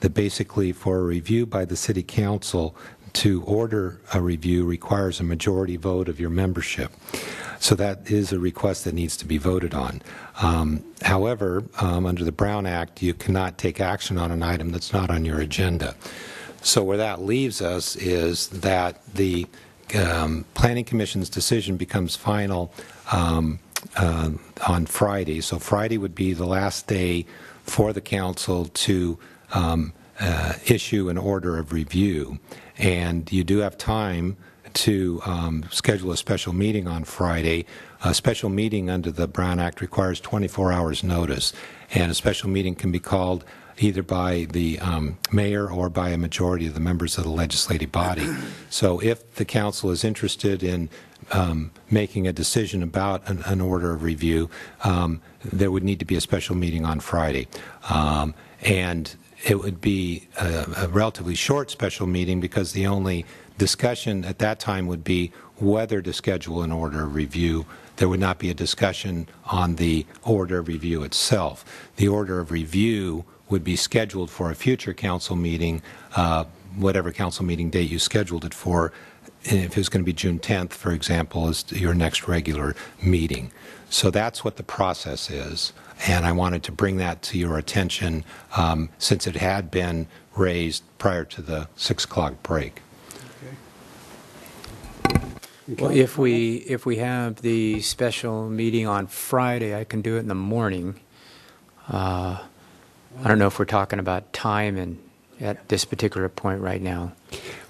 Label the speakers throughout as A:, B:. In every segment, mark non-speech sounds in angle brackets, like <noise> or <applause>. A: that basically for a review by the city council, to order a review requires a majority vote of your membership. So that is a request that needs to be voted on. Um, However, um, under the Brown Act, you cannot take action on an item that's not on your agenda. So where that leaves us is that the um, Planning Commission's decision becomes final um, uh, on Friday. So Friday would be the last day for the council to um, uh, issue an order of review. And you do have time to um, schedule a special meeting on Friday. A special meeting under the Brown Act requires 24 hours' notice, and a special meeting can be called either by the um, mayor or by a majority of the members of the legislative body. So if the council is interested in um, making a decision about an, an order of review, um, there would need to be a special meeting on Friday. Um, and it would be a, a relatively short special meeting because the only discussion at that time would be whether to schedule an order of review. There would not be a discussion on the order of review itself. The order of review would be scheduled for a future council meeting, uh, whatever council meeting date you scheduled it for. And If it's going to be June 10th, for example, is your next regular meeting. So that's what the process is, and I wanted to bring that to your attention um, since it had been raised prior to the 6 o'clock break.
B: Well, if we, if we have the special meeting on Friday, I can do it in the morning. Uh, I don't know if we're talking about time and at this particular point right now.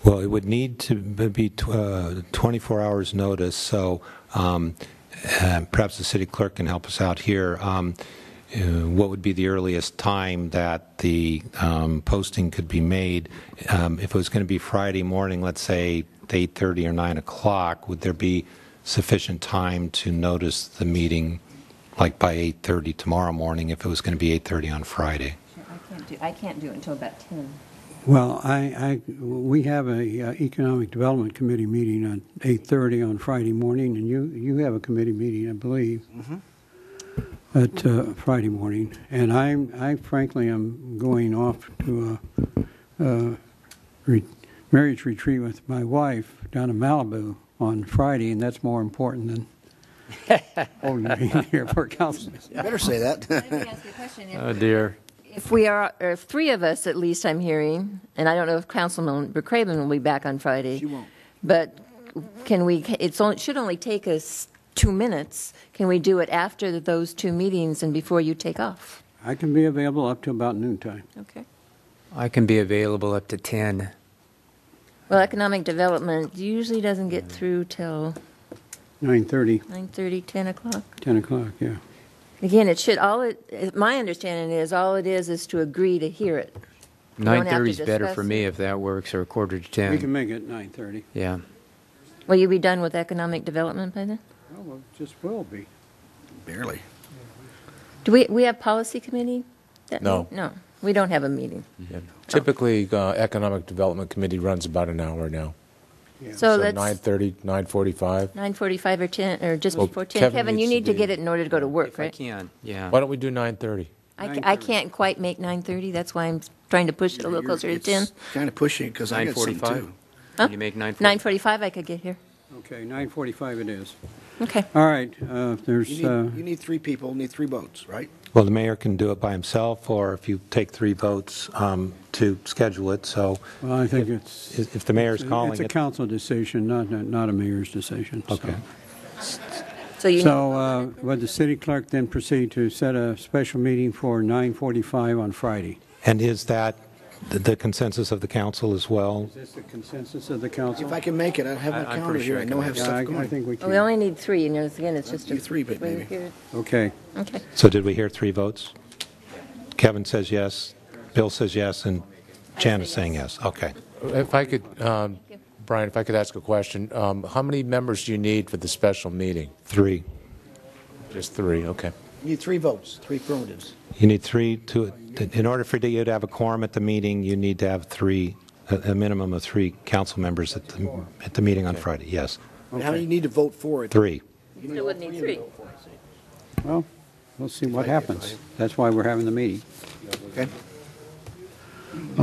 A: Well, it would need to be tw- uh, 24 hours' notice, so um, uh, perhaps the city clerk can help us out here. Um, uh, What would be the earliest time that the um, posting could be made? Um, If it was going to be Friday morning, let's say 8:30 or 9 o'clock, would there be sufficient time to notice the meeting, like by 8:30 tomorrow morning, if it was going to be 8:30 on Friday?
C: I can't do, I can't do it until about 10.
D: Well, I, I, we have a uh, Economic Development Committee meeting on 8:30 on Friday morning, and you, you have a committee meeting, I believe, at uh, Friday morning. And I'm, I frankly am going off to a, a re- marriage retreat with my wife down in Malibu on Friday, and that's more important than holding a meeting here for council.
E: You better say that.
F: <laughs>
C: Let me ask you a question. If-
B: dear.
C: If we are, or if three of us at least, I'm hearing, and I don't know if Councilman Craven will be back on Friday. She won't. But can we, it's, on- it should only take us two minutes. Can we do it after those two meetings and before you take off?
D: I can be available up to about noontime.
C: Okay.
B: I can be available up to 10.
C: Well, economic development usually doesn't get through till
D: 9:30,
C: 9:30, 10 o'clock.
D: 10 o'clock, yeah.
C: Again, it should, all it, my understanding is, all it is, is to agree to hear it. have to
B: 9:30 is better
C: discuss
B: for me if that works, or quarter to
D: We can
B: 10.
D: make it 9:30.
B: Yeah.
C: Will you be done with economic development by then?
D: Oh, well, just will be.
E: Barely.
C: Do we, we have policy committee? that
F: No.
C: night? No, we don't have a meeting.
F: Typically, uh, Economic Development Committee runs about an hour now.
C: So
F: So
C: that's
F: 9:30, 9:45.
C: 9:45 or 10, or just
F: Well,
C: before 10.
F: Kevin
C: Kevin, you
F: needs to
C: need to
F: be-
C: get it in order to go to work,
B: If I
C: right?
B: can, yeah.
F: Why don't we do 9:30?
C: I, ca- I
D: 9:30.
C: can't quite make 9:30, that's why I'm trying to push it a little closer to 10.
E: Kind of pushing because I got some too.
B: Can you make 9:45?
C: 9:45 I could get here.
D: Okay, 9:45 it is.
C: Okay.
D: All right, uh, if
E: You
D: there's, uh,
E: need, you need three people, need three votes, right?
A: Well, the mayor can do it by himself, or if you take three votes um, to schedule it, so
D: well, I think it's,
A: if if the mayor's calling
D: it's a
A: it,
D: council decision, not, not a mayor's decision. so.
A: Okay.
C: So you,
D: So uh, would the city clerk then proceed to set a special meeting for 9:45 on Friday?
A: and is that the- the consensus of the council as well?
D: Is this the consensus of the council?
E: If I can make it, I have
B: I-
E: my
B: I'm pretty
E: calendar
B: sure
E: here.
B: I
E: I
B: can
E: know I
B: make
E: have
D: Yeah,
E: stuff
D: I I
E: going.
D: think we
C: oh, we only
D: can.
C: need three, and it's- again, it's just a.
E: You three, but
C: way
E: maybe.
C: here.
D: Okay,
C: Okay.
A: So did we hear three votes? Kevin says yes, Bill says yes, and Jan is saying yes. Okay.
F: If I could, um, Brian, if I could ask a question, um, how many members do you need for the special meeting?
A: Three.
F: Just three, okay.
E: You need three votes, three affirmatives.
A: You need three to, in order for you to have a quorum at the meeting, you need to have three, a a minimum of three council members at the, at the meeting on Friday. Yes,
E: How many you need to vote for it?
A: three.
C: You still would need three.
D: well, we'll see what happens. That's why we're having the meeting.
E: Okay.